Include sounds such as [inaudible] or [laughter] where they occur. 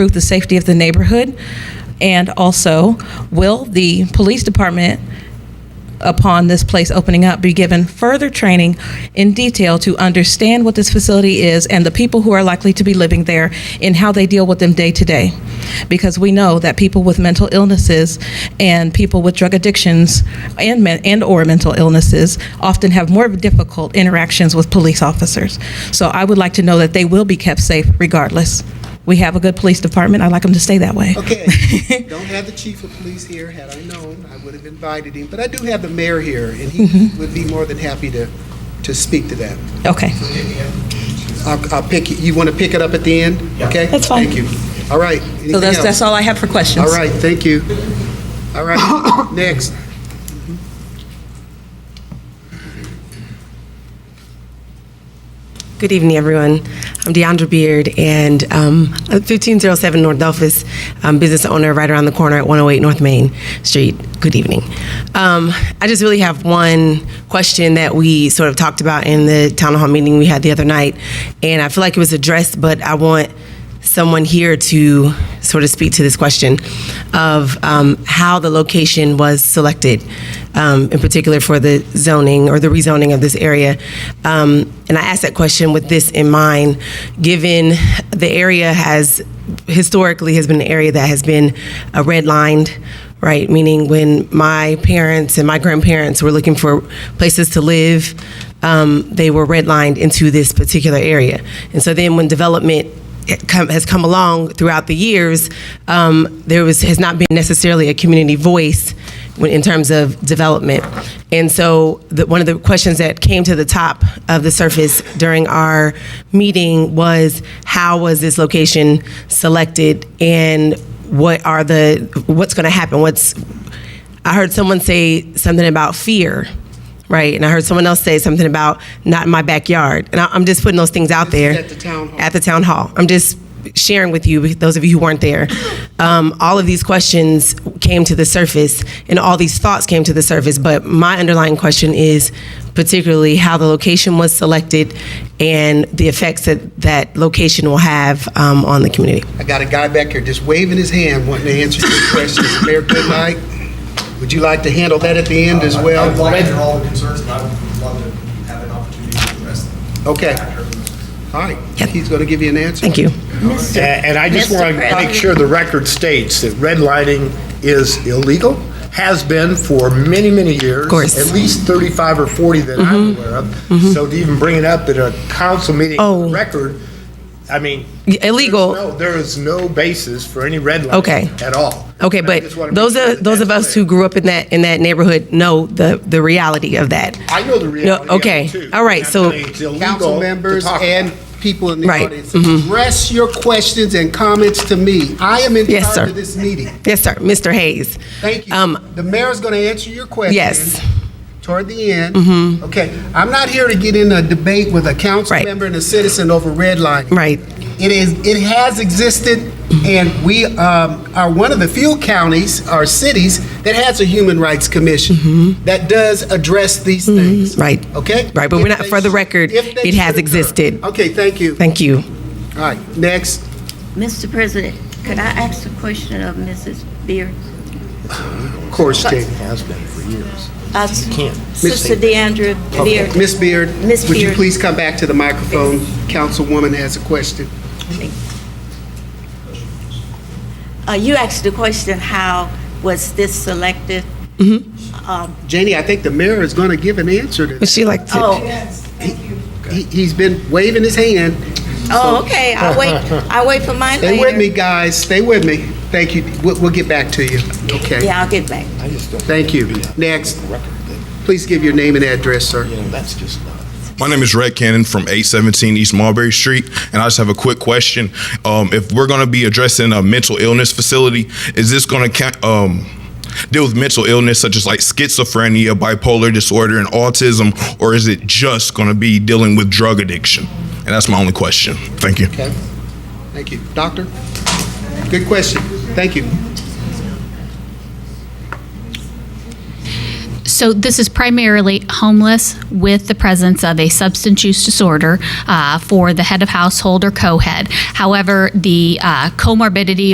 improve the safety of the neighborhood? And also, will the police department, upon this place opening up, be given further training in detail to understand what this facility is and the people who are likely to be living there and how they deal with them day to day? Because we know that people with mental illnesses and people with drug addictions and men, and or mental illnesses often have more difficult interactions with police officers. So I would like to know that they will be kept safe regardless. We have a good police department. I'd like them to stay that way. [laughs] Okay, don't have the chief of police here. Had I known, I would have invited him, but I do have the mayor here, and he [laughs] would be more than happy to, to speak to that. Okay. I'll, I'll pick, you want to pick it up at the end? Okay? That's fine. Thank you. All right. So that's, that's all I have for questions. All right, thank you. All right, [laughs] next. Good evening, everyone. I'm Deandra Beard, and um, I'm 1507 North Delphus, um, business owner right around the corner at 108 North Main Street. Good evening. Um, I just really have one question that we sort of talked about in the town hall meeting we had the other night, and I feel like it was addressed, but I want someone here to sort of speak to this question of um, how the location was selected, um, in particular for the zoning or the rezoning of this area. Um, and I asked that question with this in mind, given the area has historically has been an area that has been uh, redlined right? Meaning, when my parents and my grandparents were looking for places to live, um, they were redlined into this particular area. And so then, when development it come- has come along throughout the years, um, there was has not been necessarily a community voice when, in terms of development. And so, the, one of the questions that came to the top of the surface during our meeting was, how was this location selected, and what are the what's going to happen what's i heard someone say something about fear right and i heard someone else say something about not in my backyard and I, i'm just putting those things out there at the town hall. at the town hall i'm just sharing with you those of you who weren't there um, all of these questions came to the surface and all these thoughts came to the surface but my underlying question is particularly how the location was selected and the effects that that location will have um, on the community I got a guy back here just waving his hand wanting to answer your questions. Mayor Goodnight, would you like to handle that at the end as well? I'd like to hear all the concerns, and I would love to have an opportunity to address them. Okay. After. All right, he's going to give you an answer. thank you And and I just want to make sure the record states that redlining is illegal, has been for many, many years. Of course. Mm-hmm. At least 35 or 40 that I'm aware of. So to even bring it up at a council meeting Oh. on the record, I mean. Y- illegal. there's no- There is no basis for any redlining. Okay. At all. Okay, And I but just wanna make those sure are, that those of that's us who clear. grew up in that, in that neighborhood know the, the reality of that. I know the reality of it, okay. too. All right, I'm so- saying It's illegal council to members talk about and it. people in the Right, Mm-hmm. audience. Address your questions and comments to me. I am in Yes, charge sir. of this meeting. Yes, sir, Mr. Hayes. Thank you. Um, The mayor's going to answer your questions. Yes. Mm-hmm. Toward the end. Okay, I'm not here to get in a debate with a council Right. member and a citizen over redlining. Right. It is, it has existed, and we um, are one of the few counties or cities that has a human rights Mm-hmm. commission that does address these things. Right. Okay? Right, but we're If not- they for the sh- record, if they it should has occur. existed. Okay, thank you. Thank you. All right, next. Mr. President, could I ask a question of Mrs. Beard? Of course, Jane has been for years. Uh, can't. Sister DeAndrea Beard. Miss Beard, Miss would you Beard. please come back to the microphone? Councilwoman has a question. Uh, You asked the question, how was this selected? Um, Janie, I think the mayor is going to give an answer to Would that. she like to? Oh, He- He's been waving his hand. oh, okay, I'll wait, I'll wait for mine later. Stay with me, guys, stay with me. Thank you, we'll, we'll get back to you. Okay, Yeah, I'll get back. thank you. Next, please give your name and address, sir. My name is Red Cannon from 817 East Mulberry Street, and I just have a quick question. Um, if we're going to be addressing a mental illness facility, is this going to um, deal with mental illness such as like schizophrenia, bipolar disorder, and autism, or is it just going to be dealing with drug addiction? And that's my only question. Thank you. Okay, thank you. Doctor? Good question, thank you. So this is primarily homeless with the presence of a substance use disorder uh, for the head of household or co-head. However, the uh, comorbidity